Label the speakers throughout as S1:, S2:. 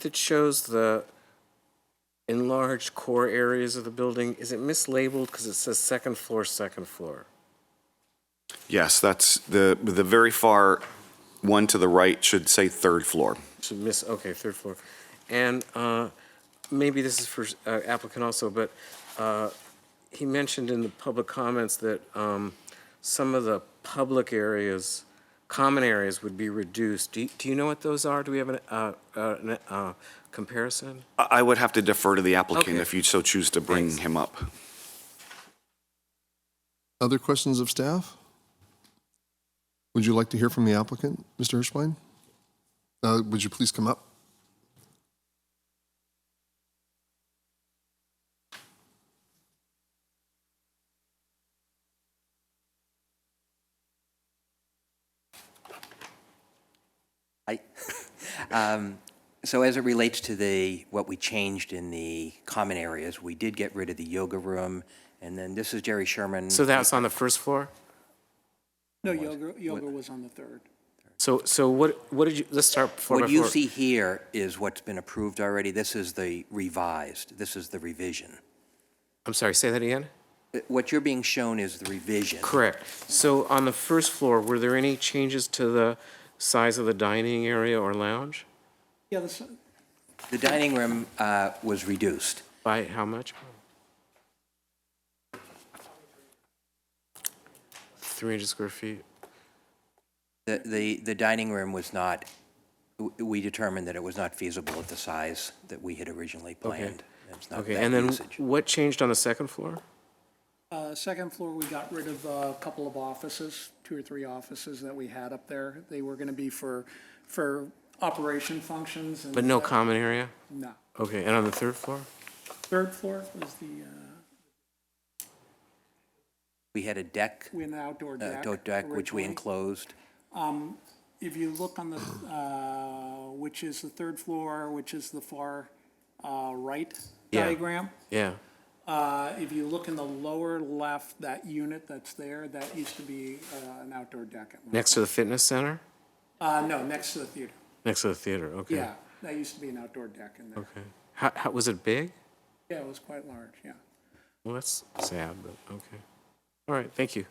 S1: that shows the enlarged core areas of the building, is it mislabeled because it says second floor, second floor?
S2: Yes, that's the, the very far one to the right should say third floor.
S1: Should miss, okay, third floor. And uh, maybe this is for uh, applicant also, but uh, he mentioned in the public comments that um, some of the public areas, common areas would be reduced. Do you- do you know what those are? Do we have an, uh, uh, an, uh, comparison?
S2: I I would have to defer to the applicant
S1: Okay.
S2: if you so choose to bring
S1: Thanks.
S2: him up.
S3: Other questions of staff? Would you like to hear from the applicant, Mr. Hirschbein? Uh, Would you please come up?
S4: I, um, so as it relates to the, what we changed in the common areas, we did get rid of the yoga room, and then this is Jerry Sherman.
S1: So that's on the first floor?
S5: No, yoga, yoga was on the third.
S1: So, so what, what did you, let's start floor by
S4: What you
S1: floor.
S4: see here is what's been approved already. This is the revised, this is the revision.
S1: I'm sorry, say that again?
S4: Uh, What you're being shown is the revision.
S1: Correct. So on the first floor, were there any changes to the size of the dining area or lounge?
S5: Yeah, this,
S4: The dining room uh, was reduced.
S1: By how much? 300 square feet.
S4: The, the, the dining room was not, w- we determined that it was not feasible at the size that we had originally planned. It's not
S1: Okay,
S4: that
S1: and then
S4: usage.
S1: what changed on the second floor?
S5: uh, second floor, we got rid of a couple of offices, two or three offices that we had up there. They were gonna be for, for operation functions and.
S1: But no common area?
S5: No.
S1: Okay, and on the third floor?
S5: Third floor was the, uh,
S4: We had a deck
S5: we had an outdoor
S4: uh,
S5: deck.
S4: goat deck, which we
S5: originally.
S4: enclosed.
S5: If you look on the, uh, which is the third floor, which is the far, uh, right
S1: Yeah.
S5: diagram.
S1: Yeah,
S5: Uh, if you look in the lower left, that unit that's there, that used to be, uh, an outdoor deck. at one-
S1: next to the fitness center?
S5: Uh, no, next to the theater.
S1: Next to the theater, okay.
S5: Yeah, that used to be an outdoor deck in there.
S1: Okay. How, how, was it big?
S5: Yeah, it was quite large, yeah.
S1: Well, that's sad, but okay. All right, thank you.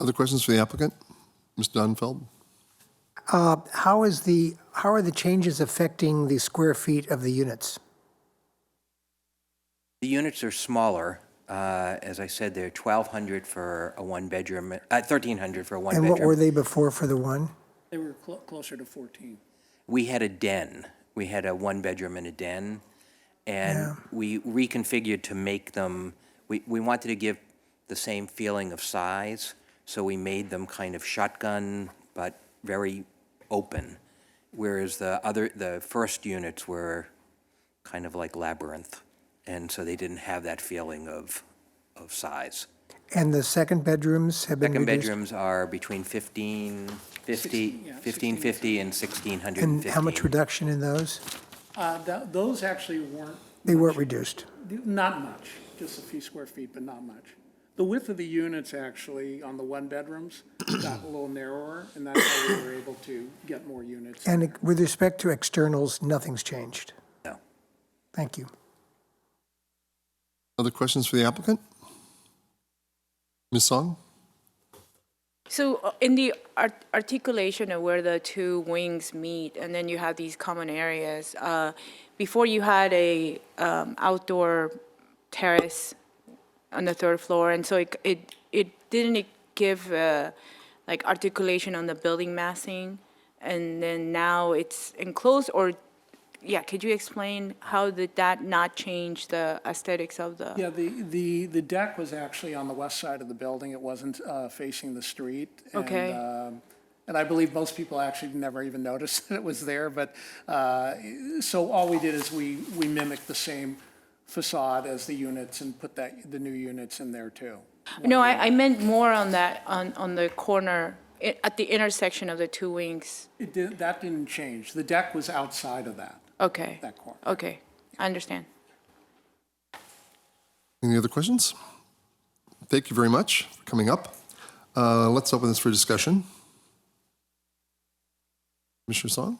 S3: Other questions for the applicant? Ms. Dunfeld?
S6: Uh, How is the, how are the changes affecting the square feet of the units?
S4: The units are smaller. Uh, As I said, they're 1,200 for a one-bedroom, uh, 1,300 for a
S6: And what were
S4: one-bedroom.
S6: they before for the one?
S5: They were clo- closer to 14.
S4: We had a den. We had a one-bedroom and a den. And we reconfigured to make them, we we wanted to give the same feeling of size, so we made them kind of shotgun, but very open. Whereas the other, the first units were kind of like labyrinth, and so they didn't have that feeling of, of size.
S6: And the second bedrooms have been
S4: Second
S6: reduced?
S4: bedrooms are between 1550, 1550 and 1650.
S6: And how much reduction in those?
S5: Uh, tha- Those actually weren't,
S6: They weren't reduced.
S5: not much, just a few square feet, but not much. The width of the units actually on the one-bedrooms got a little narrower, and that's how we were able to get more units. in
S6: And
S5: there.
S6: with respect to externals, nothing's changed?
S4: No.
S6: Thank you.
S3: Other questions for the applicant? Ms. Song?
S7: So uh, in the art- articulation of where the two wings meet, and then you have these common areas, uh, before you had a um, outdoor terrace on the third floor, and so it, it, it didn't give uh, like articulation on the building massing, and then now it's enclosed, or, yeah, could you explain how did that not change the aesthetics of the?
S5: Yeah, the, the, the deck was actually on the west side of the building. It wasn't uh, facing the street. and,
S7: Okay.
S5: um, And I believe most people actually never even noticed that it was there, but, uh, so all we did is we, we mimicked the same facade as the units and put that, the new units in there too.
S7: No, I, I meant more on that, on, on the corner, i- at the intersection of the two wings.
S5: It did, that didn't change. The deck was outside of that,
S7: Okay,
S5: that corner.
S7: okay, I understand.
S3: Any other questions? Thank you very much for coming up. Uh, Let's open this for discussion. Mr. Song?